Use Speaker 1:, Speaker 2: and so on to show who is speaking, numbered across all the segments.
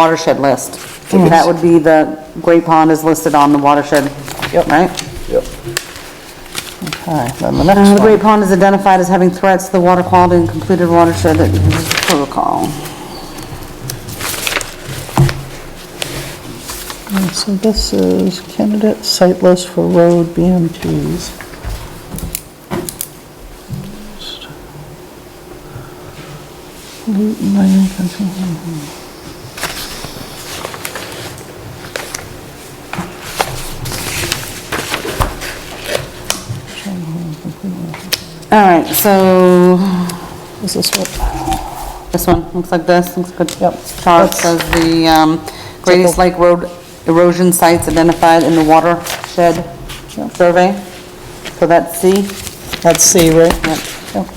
Speaker 1: watershed list. That would be the, Great Pond is listed on the watershed,
Speaker 2: Yep.
Speaker 1: right?
Speaker 2: Yep. Okay, then the
Speaker 1: Uh, The
Speaker 2: next
Speaker 1: Great
Speaker 2: one.
Speaker 1: Pond is identified as having threats to the water quality and completed watershed protocol.
Speaker 2: So this is candidate site list for road BMTs.
Speaker 1: All right, so
Speaker 2: Is this what?
Speaker 1: this one, looks like this, looks good.
Speaker 2: Yep.
Speaker 1: Chart says the um, Great East Lake Road erosion sites identified in the watershed survey. So that's C.
Speaker 2: That's C, right?
Speaker 1: Yep.
Speaker 2: Yep.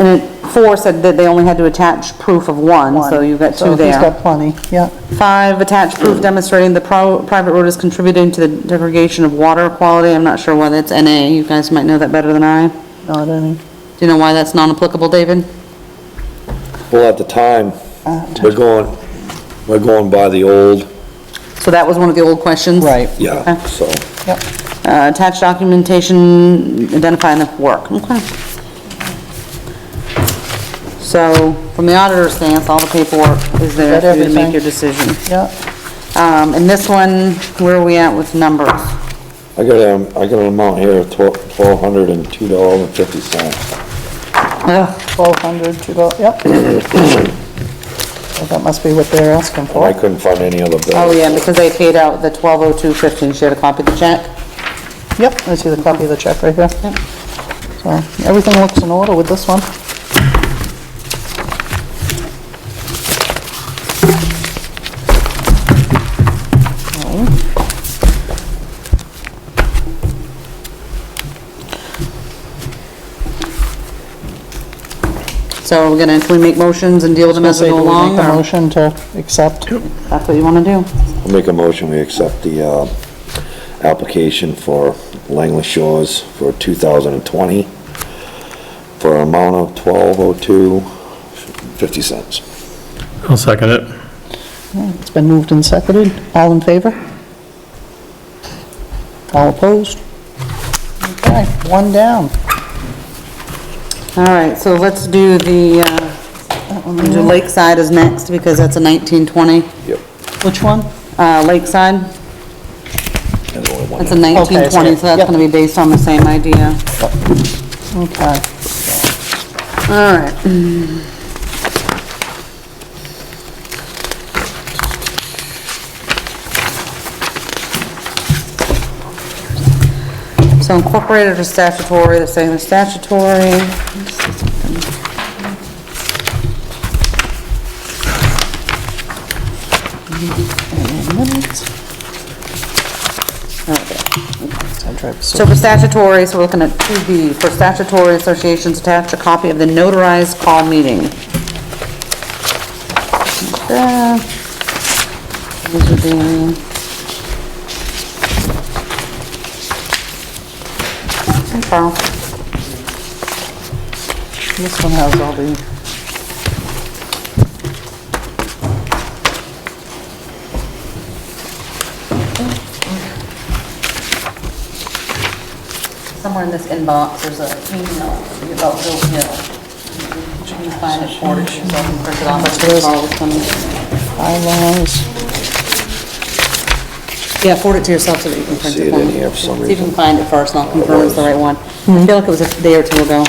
Speaker 1: And it- four said that they only had to attach proof of one, so you've got two
Speaker 2: he's
Speaker 1: there.
Speaker 2: got plenty, yeah.
Speaker 1: Five, attach proof demonstrating the pro- private road is contributing to the degradation of water quality. I'm not sure why that's NA, you guys might know that better than I. Do
Speaker 2: Not any.
Speaker 1: you know why that's non-applicable, David?
Speaker 3: Well, at the time, we're going, we're going by the old,
Speaker 1: So that was one of the old questions?
Speaker 2: Right,
Speaker 3: yeah, so.
Speaker 2: yep.
Speaker 1: Uh, attach documentation identifying the work, okay. So, from the auditor's stance, all the paperwork is there
Speaker 2: Is that
Speaker 1: for you to
Speaker 2: everything?
Speaker 1: make your decision.
Speaker 2: Yeah,
Speaker 1: Um, and this one, where are we at with numbers?
Speaker 3: I got, um, I got an amount here of twelve, twelve hundred and two dollars and fifty cents.
Speaker 1: Ugh,
Speaker 2: 1,200 to go, yep. Well, That must be what they're asking
Speaker 3: And I
Speaker 2: for.
Speaker 3: couldn't find any other bill.
Speaker 1: Oh, yeah, because they paid out the twelve oh two fifteen, she had a copy of the check.
Speaker 2: Yep, I see the copy of the check right here. So, everything looks in order with this one.
Speaker 1: So we're gonna, can we make motions and deal with them as we
Speaker 2: Say,
Speaker 1: go
Speaker 2: do we
Speaker 1: along,
Speaker 2: Make a
Speaker 1: or
Speaker 2: motion to accept.
Speaker 1: that's what you wanna do?
Speaker 3: I'll Make a motion, we accept the, uh, application for Langley Shores for two thousand and twenty for an amount of twelve oh two fifty cents.
Speaker 4: I'll second it.
Speaker 2: It's been moved and seconded. All in favor? All opposed? Okay, one down.
Speaker 1: All right, so let's do the, uh, do Lakeside is next, because that's a nineteen twenty.
Speaker 3: Yep.
Speaker 2: Which one?
Speaker 1: Uh, Lakeside,
Speaker 3: There's only one.
Speaker 1: that's a nineteen twenty, so that's
Speaker 2: yep.
Speaker 1: gonna be based on the same idea.
Speaker 2: Okay.
Speaker 1: All right, so incorporated or statutory, they're saying they're statutory. So for statutory, so we're looking at 2B, for statutory associations, attach a copy of the notarized call meeting. Uh, These would be... Hey, Carl.
Speaker 2: This one has all the,
Speaker 1: Somewhere in this inbox, there's a email about Bill Hill. Should you find it for it, so I can print it off,
Speaker 2: There is.
Speaker 1: Carl was coming.
Speaker 2: bylaws.
Speaker 1: Yeah, forward it to yourself so that you can print
Speaker 3: See
Speaker 1: it
Speaker 3: it
Speaker 1: for
Speaker 3: in
Speaker 1: me.
Speaker 3: here for some
Speaker 1: See if you
Speaker 3: reason.
Speaker 1: can find it first, and I'll confirm it's the right one. I feel like it was a day or two ago.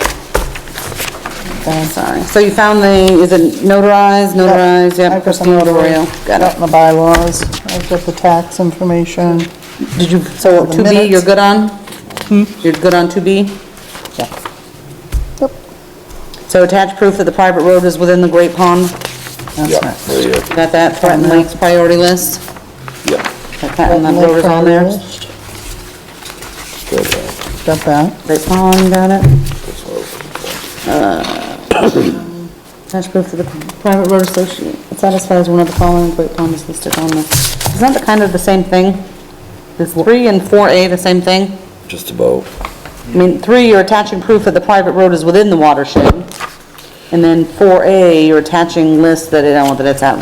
Speaker 1: Oh, Sorry. So you found the, is it notarized, notarized, yep,
Speaker 2: I've got the
Speaker 1: Christine Arroyo,
Speaker 2: notary,
Speaker 1: got
Speaker 2: got the bylaws, I've got the tax information.
Speaker 1: it. Did you, so
Speaker 2: The
Speaker 1: 2B, you're
Speaker 2: minutes.
Speaker 1: good on? You're good on 2B?
Speaker 2: Yep,
Speaker 1: So attach proof that the private road is within the Great Pond,
Speaker 2: that's
Speaker 3: Yeah,
Speaker 2: nice.
Speaker 3: there you go,
Speaker 1: got that, Threatened Lakes priority list,
Speaker 3: yeah,
Speaker 1: that Threatened Lake Road is on there.
Speaker 3: good, uh,
Speaker 2: Got that,
Speaker 1: Great Pond, got it.
Speaker 3: that's what I was looking for.
Speaker 1: Attach proof that the private road association satisfies one of the following Great Pond is listed on the, isn't that kind of the same thing? Is 3 and 4A the same thing?
Speaker 3: Just about.
Speaker 1: I mean, three, you're attaching proof that the private road is within the watershed. And then four A, you're attaching lists that, it- that it's at